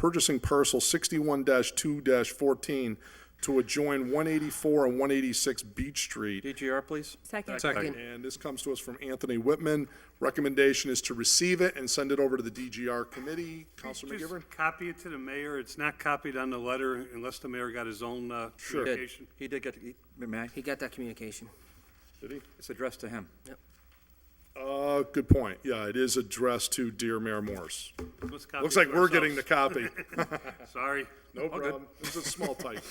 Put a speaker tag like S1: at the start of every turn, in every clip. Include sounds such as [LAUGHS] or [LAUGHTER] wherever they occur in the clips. S1: purchasing parcel sixty-one two fourteen to adjoin one eighty-four and one eighty-six Beach Street.
S2: DGR, please.
S3: Second.
S1: And this comes to us from Anthony Whitman. Recommendation is to receive it and send it over to the DGR committee. Council
S4: Just
S1: McGivern?
S4: copy it to the mayor. It's not copied on the letter unless the mayor got his own uh,
S2: Did-
S4: communication.
S2: He did get, he- may I?
S3: He got that communication.
S1: Did he?
S2: It's addressed to him.
S1: Uh, good point. Yeah, it is addressed to dear Mayor Morse.
S4: Let's copy
S1: Looks
S4: it
S1: like we're getting the
S4: ourselves. [LAUGHS]
S1: copy.
S4: Sorry.
S1: No problem. This is a small
S4: [LAUGHS]
S1: type.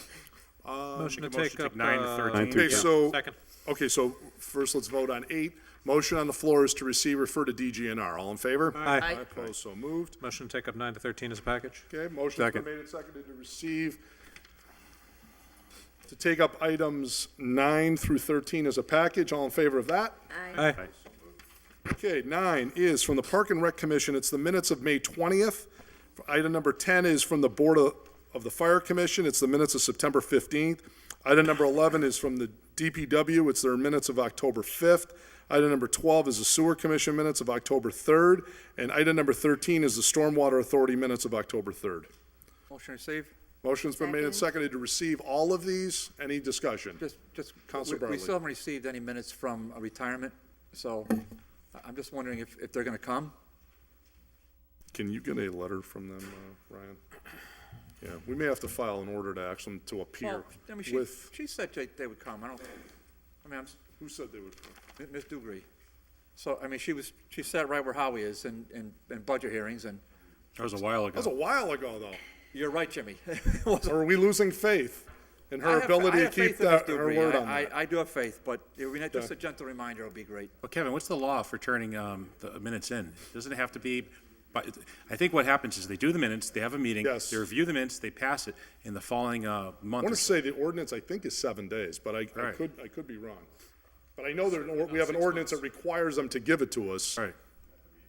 S5: Motion to
S6: Make a motion
S5: take
S6: to
S5: up.
S6: take nine to
S5: uh,
S6: 13.
S1: Okay, so,
S5: Second.
S1: okay, so first let's vote on eight. Motion on the floor is to receive, refer to DGNR. All in favor?
S5: Aye.
S3: Aye.
S1: Opposed, so moved.
S5: Motion to take up nine to 13 as a package.
S1: Okay, motion's been
S6: Second.
S1: made and seconded to receive, to take up items nine through 13 as a package. All in favor of that?
S5: Aye.
S1: Okay, nine is from the Park and Rec Commission. It's the minutes of May 20th. Item number 10 is from the Board of, of the Fire Commission. It's the minutes of September 15th. Item number 11 is from the DPW. It's their minutes of October 5th. Item number 12 is the Sewer Commission minutes of October 3rd. And item number 13 is the Stormwater Authority minutes of October 3rd.
S2: Motion received.
S1: Motion's been made and seconded to receive all of these. Any discussion?
S2: Just, just,
S1: Counselor
S2: we- we
S1: Bartley.
S2: still haven't received any minutes from a retirement, so I- I'm just wondering if, if they're going to come?
S1: Can you get a letter from them, uh, Ryan? Yeah, we may have to file an order to ask them to appear
S2: Well, I mean, she-
S1: with,
S2: She said they- they would come. I don't, I mean, I'm, s-
S1: who said they would?
S2: M- Ms. Dugree. So, I mean, she was, she sat right where Howie is in, in, in budget hearings, and
S6: That was a while
S1: That was a
S6: ago.
S1: while ago, though.
S2: you're right, Jimmy. [LAUGHS] It wasn't-
S1: Are we losing faith in
S2: I
S1: her
S2: have-
S1: ability
S2: I
S1: to
S2: have
S1: keep
S2: faith in Ms.
S1: that, her
S2: Dugree.
S1: word
S2: I-
S1: on that?
S2: I, I do have faith, but I mean, just a gentle reminder would be great.
S6: Well, Kevin, what's the law for turning um, the minutes in? Doesn't it have to be, but I think what happens is they do the minutes, they have a meeting.
S1: Yes.
S6: They review the minutes, they pass it in the following uh,
S1: I
S6: month.
S1: want
S6: or
S1: to
S6: so.
S1: say the ordinance, I think, is seven days, but I, I
S6: Right.
S1: could, I could be wrong. But I know that an or- we have an ordinance that requires them to give it to us.
S6: All right.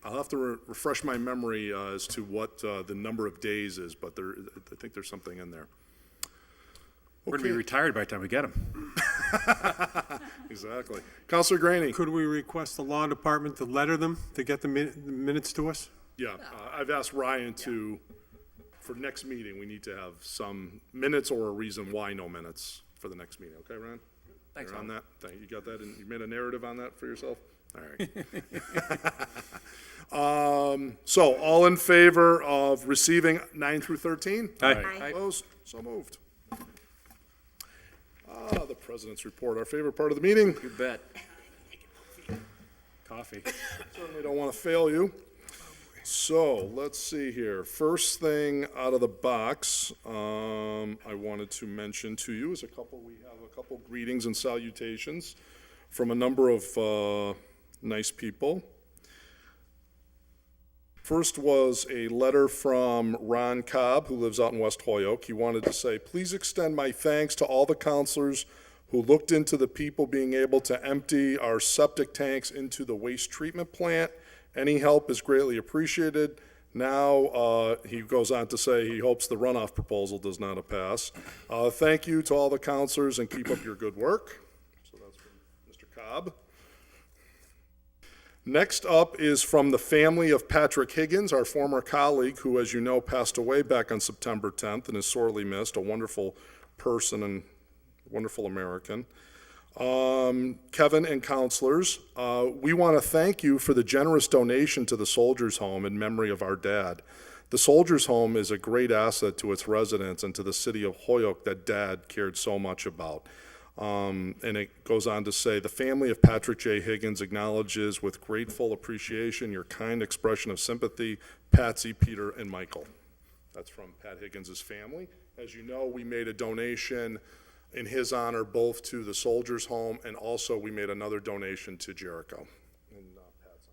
S1: I'll have to re- refresh my memory uh, as to what uh, the number of days is, but there, I think there's something in there.
S6: We're going to be
S1: Okay.
S6: retired by the time we get them.
S1: Exactly. Counselor Granny?
S7: Could we request the law department to letter them, to get the min- the minutes to us?
S1: Yeah, uh, I've asked Ryan to, for next meeting, we need to have some minutes or a reason why no minutes for the next meeting, okay, Ryan?
S2: Thanks,
S1: You're on that, Thank- you got that, and you made a narrative on that for yourself? All right. [LAUGHS] Um, so, all in favor of receiving nine through thirteen?
S5: Aye.
S1: Opposed? So moved. Ah, the president's report, our favorite part of the meeting.
S2: You bet.
S6: Coffee.
S1: Certainly don't want to fail you. So, let's see here. First thing out of the box, um, I wanted to mention to you is a couple, we have a couple greetings and salutations from a number of, uh, nice people. First was a letter from Ron Cobb, who lives out in West Holyoke. He wanted to say, please extend my thanks to all the counselors who looked into the people being able to empty our septic tanks into the waste treatment plant. Any help is greatly appreciated. Now, uh, he goes on to say he hopes the runoff proposal does not pass. Uh, thank you to all the counselors and keep up your good work. So that's from Mr. Cobb. Next up is from the family of Patrick Higgins, our former colleague, who, as you know, passed away back on September 10th and is sorely missed, a wonderful person and wonderful American. Um, Kevin and counselors, uh, we want to thank you for the generous donation to the Soldiers Home in memory of our dad. The Soldiers Home is a great asset to its residents and to the city of Holyoke that dad cared so much about. Um, and it goes on to say the family of Patrick J. Higgins acknowledges with grateful appreciation your kind expression of sympathy, Patsy, Peter, and Michael. That's from Pat Higgins' family. As you know, we made a donation in his honor both to the Soldiers Home and also we made another donation to Jericho. in, uh, Pat's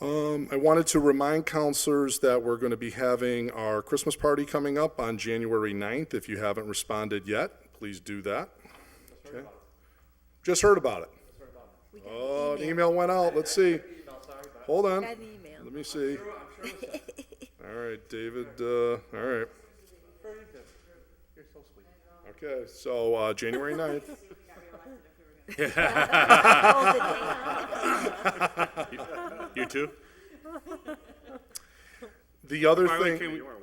S1: honor. Um, I wanted to remind counselors that we're going to be having our Christmas party coming up on January 9th. If you haven't responded yet, please do that. Okay. Just heard about it. Oh, an email went out. Let's [LAUGHS] see. Hold on.
S3: Got an email.
S1: Let me see. [LAUGHS] All right, David, uh, all right. Okay, so, uh, January ninth.
S6: You too?
S1: The other
S4: Why
S1: thing.
S4: can't we-